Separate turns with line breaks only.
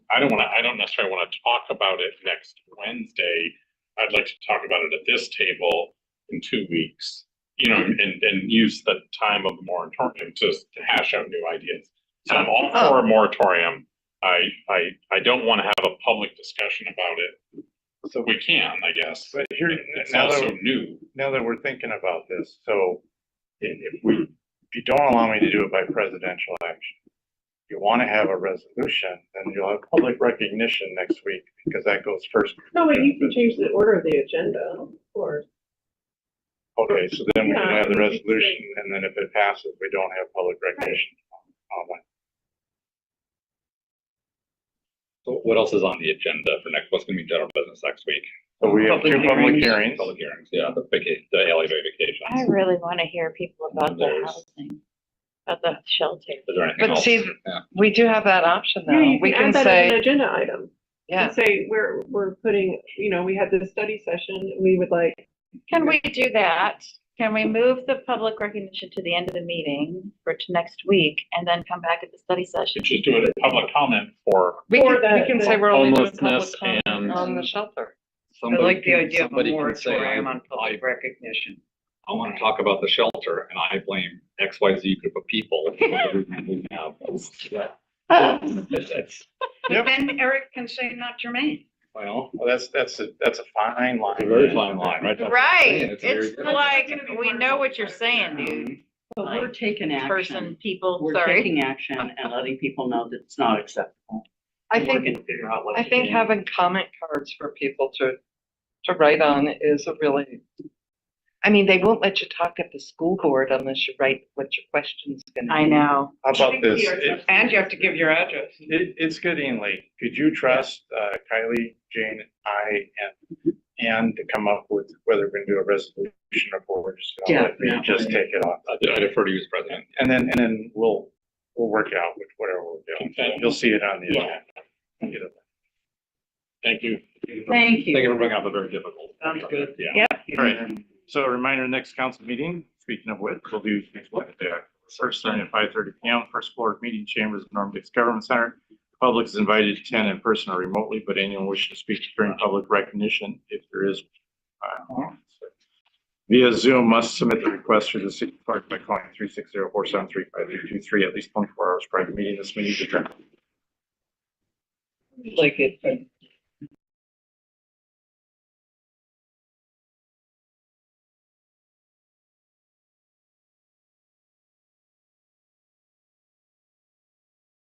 I don't wanna, I don't necessarily wanna talk about it next Wednesday. I'd like to talk about it at this table in two weeks. You know, and, and use the time of the moratorium to to hash out new ideas. So I'm all for a moratorium. I, I, I don't wanna have a public discussion about it.
So,
We can, I guess.
but here,
It's
now
also
that,
new.
now that we're thinking about this, so if, if we, if you don't allow me to do it by presidential action, you want to have a resolution, then you'll have public recognition next week because that goes first.
No, but you can change the order of the agenda, or,
Okay, so then we can
Yeah.
have the resolution and then if it passes, we don't have public recognition. on that.
So What else is on the agenda for next, what's gonna be general business next week?
So we have two public hearings.
Public hearings, yeah, the vacation, the LA
I
vacations.
really want to hear people about the
There's-
housing, about the shelter.
Is there anything
But
else?
see, we do have that option
Yeah,
though.
you
We
can add
can
that as an
say,
agenda item.
yeah,
And say, we're, we're putting, you know, we had this study session, we would like,
Can we do that? Can we move the public recognition to the end of the meeting for to next week and then come back at the study session?
It's just doing a public comment for
we
Or
can, we
that-
can
that-
say we're only doing public
Homelessness and-
comment on the shelter.
I
Somebody
like the
can-
idea of a
somebody can say,
moratorium
I-
on
I,
public recognition.
I wanna talk about the shelter and I blame X, Y, Z group of people. We have. It's, it's,
Yep.
Then Eric can say not germane.
well,
Well, that's, that's a, that's a fine line.
it's a very fine line, right? That's what I'm saying.
Right,
It's a very
it's
good-
like, we know what you're saying, dude,
But we're taking
person,
action.
people,
We're
sorry.
taking action and letting people know that it's not acceptable.
I
And we're
think,
gonna figure out what
I
to
think
do.
having comment cards for people to, to write on is a really, I mean, they won't let you talk at the school board unless you write what your question's gonna be.
I know.
How about this? If-
And you have to give your address.
It, it's getting late. Could you trust, uh, Kylie, Jane, I, and Anne to come up with whether we're gonna do a resolution or what we're just gonna let you just take it off?
I I defer to you as president.
And then, and then we'll, we'll work out with whatever we're
Okay.
doing. You'll see it on the
Yeah.
agenda. Either way.
Thank you.
Thank
Thank you
you.
for bringing up a very difficult.
Sounds good.
Yeah.
All right. So a reminder, next council meeting, speaking of which, we'll do next Wednesday, first starting at five thirty P M, first floor meeting chambers, of Norm Dix Government Center. Public is invited to attend in person or remotely, but anyone wishing to speak during public recognition, if there is. uh, Via Zoom must submit the request through the city clerk by calling three six zero four seven three five three two three at least twenty-four hours prior to meeting. This meeting is adjourned.
Like it, but